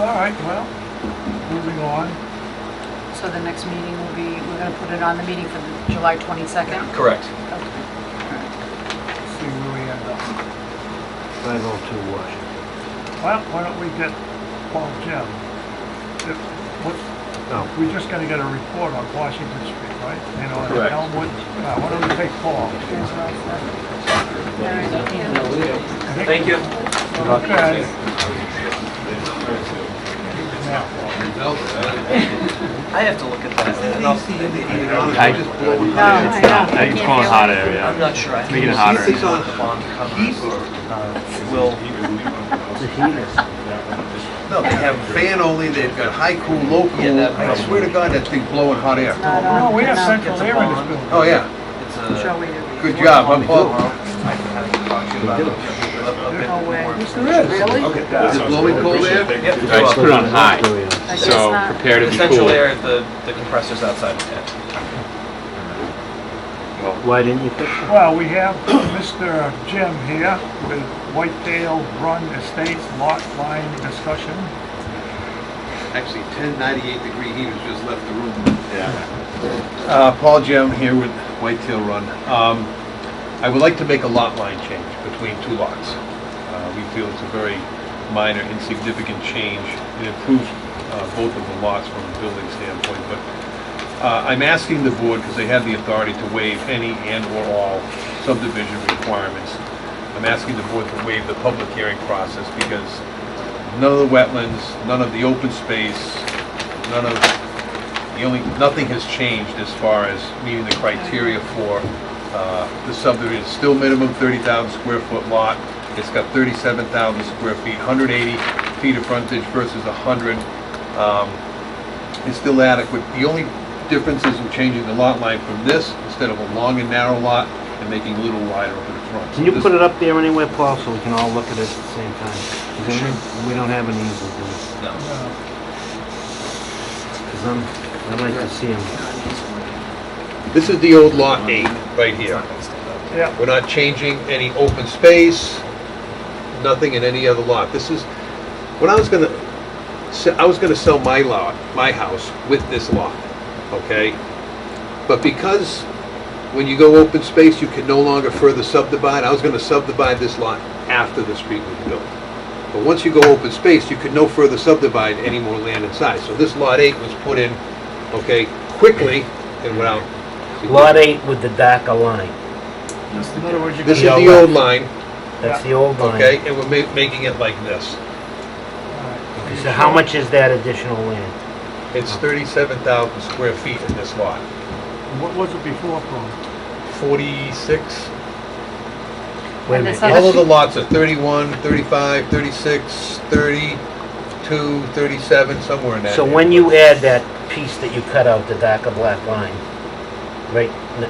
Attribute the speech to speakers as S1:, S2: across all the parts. S1: All right, well, moving on.
S2: So the next meeting will be, we're going to put it on the meeting for the July 22nd?
S3: Correct.
S2: Okay.
S1: See where we end up.
S4: I go to Washington.
S1: Well, why don't we get Paul Jim? If- What's,
S4: No,
S1: we're just gonna get a report on Washington Street, right? You know, and
S3: Correct.
S1: Elmwood, uh, why don't we take Paul?
S2: Here's what I said. All right, yeah.
S3: Thank you.
S1: Okay. Now,
S3: I have to look at that.
S5: I-
S2: No, I know.
S5: I think it's calling hot air, yeah.
S3: I'm not sure. I
S5: Making
S3: think
S5: it hotter.
S3: the bond covers, uh, will,
S4: the heater.
S6: No, they have fan only, they've got high cool, low
S3: Yeah,
S6: cool.
S3: that-
S6: I swear to God, that thing blowing hot air.
S2: Not on-
S1: No, we have
S2: not-
S1: central air in this building.
S6: Oh, yeah,
S3: it's
S2: Show
S3: a.
S2: me.
S6: good job, I'm Paul.
S3: I can have to talk to you about it.
S2: No way.
S1: Yes, there is.
S2: Really?
S6: Is it blowing cold air?
S3: Yep.
S5: I just put it on high,
S2: I guess
S5: so
S2: not.
S5: prepare to be
S3: Essential
S5: cool.
S3: air, the, the compressor's outside the tent.
S4: Why didn't you fix it?
S1: Well, we have Mr. Jim here with Whitetail Run Estates Lot Line Discussion.
S6: Actually, 1098 degree heaters just left the room. Yeah. Uh, Paul Jim here with Whitetail Run. Um, I would like to make a lot line change between two lots. Uh, We feel it's a very minor insignificant change. It improves uh, both of the lots from a building standpoint, but uh, I'm asking the board, because they have the authority to waive any and/or all subdivision requirements. I'm asking the board to waive the public hearing process because none of the wetlands, none of the open space, none of, the only, nothing has changed as far as meeting the criteria for uh, the subdivision. It's Still minimum 30,000 square foot lot. It's got 37,000 square feet, 180 feet of frontage versus 100. Um, It's still adequate. The only difference is we're changing the lot line from this, instead of a long and narrow lot, and making it a little wider over the front.
S4: Can you
S6: This-
S4: put it up there anywhere, Paul, so we can all look at it at the same time? Is there any- We don't have an easel, do we?
S3: No.
S4: Because I'm, I'd like to see him.
S6: This is the old lot eight, right here.
S1: Yeah,
S6: We're not changing any open space, nothing in any other lot. This is, when I was gonna, se- I was gonna sell my lot, my house with this lot, okay? But because when you go open space, you can no longer further subdivide, I was gonna subdivide this lot after the street was built. But once you go open space, you could no further subdivide any more land inside. So this lot eight was put in, okay, quickly and without.
S4: Lot eight with the darker line.
S1: in other words, you
S6: This is
S1: can...
S6: the old line,
S4: That's the old line.
S6: Okay, and we're ma- making it like this.
S1: uh,
S4: Okay, So how much is that additional land?
S6: It's 37,000 square feet in this lot.
S1: What was it before, Paul?
S6: 46,
S4: Wait a
S2: And this
S4: minute,
S2: other-
S6: all of the lots are 31, 35, 36, 32, 37, somewhere in that.
S4: So when you add that piece that you cut out, the darker black line, right, n-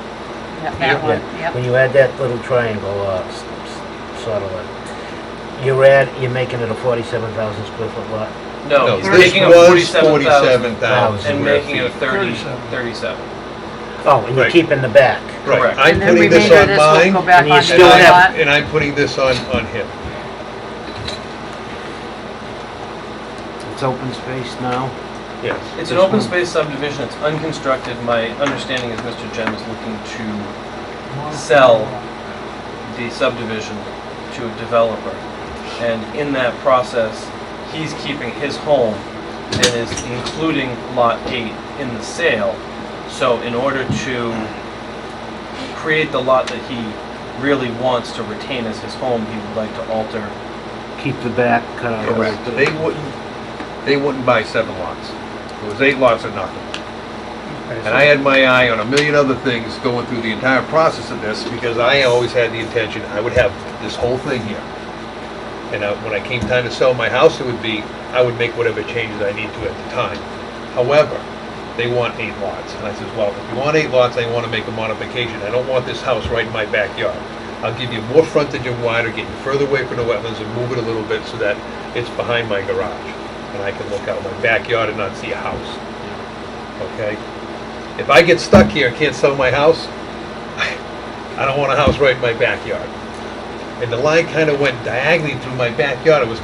S2: Yeah, That one, yep.
S4: When you add that little triangle, uh, s- s- sort of, uh, you're add, you're making it a forty-seven thousand square foot lot.
S6: No,
S3: No, he's
S6: this
S3: taking a
S6: was
S3: forty-seven thousand
S6: 47,000
S3: and
S6: square
S3: making it a
S6: feet.
S3: thirty,
S1: 37.
S3: thirty-seven.
S4: Oh, and you're
S6: Right.
S4: keeping the back.
S6: Right,
S3: correct.
S6: I'm
S2: And then
S6: putting this
S2: remainder of
S6: on
S2: this will go
S6: mine,
S2: back
S4: and you
S2: onto
S6: and
S4: still
S2: the
S4: have-
S2: lot.
S6: I'm, and I'm putting this on, on him.
S4: It's open space now.
S6: Yes.
S3: It's an open space subdivision, it's unconstructed, my understanding is Mr. Jem is looking to Sell. the subdivision to a developer. And in that process, he's keeping his home and is including Lot 8 in the sale. So in order to create the lot that he really wants to retain as his home, he would like to alter.
S4: Keep the back cut out.
S6: Correct. They wouldn't, they wouldn't buy seven lots. It was eight lots or nothing. And I had my eye on a million other things going through the entire process of this, because I always had the intention, I would have this whole thing here. And I- when I came time to sell my house, it would be, I would make whatever changes I need to at the time. However, they want eight lots, and I says, well, if you want eight lots, I wanna make a modification, I don't want this house right in my backyard. I'll give you more frontage and wider, get you further away from the wetlands and move it a little bit so that it's behind my garage. And I can look out my backyard and not see a house. Okay? If I get stuck here and can't sell my house, I don't want a house right in my backyard. And the line kind of went diagonally through my backyard. It was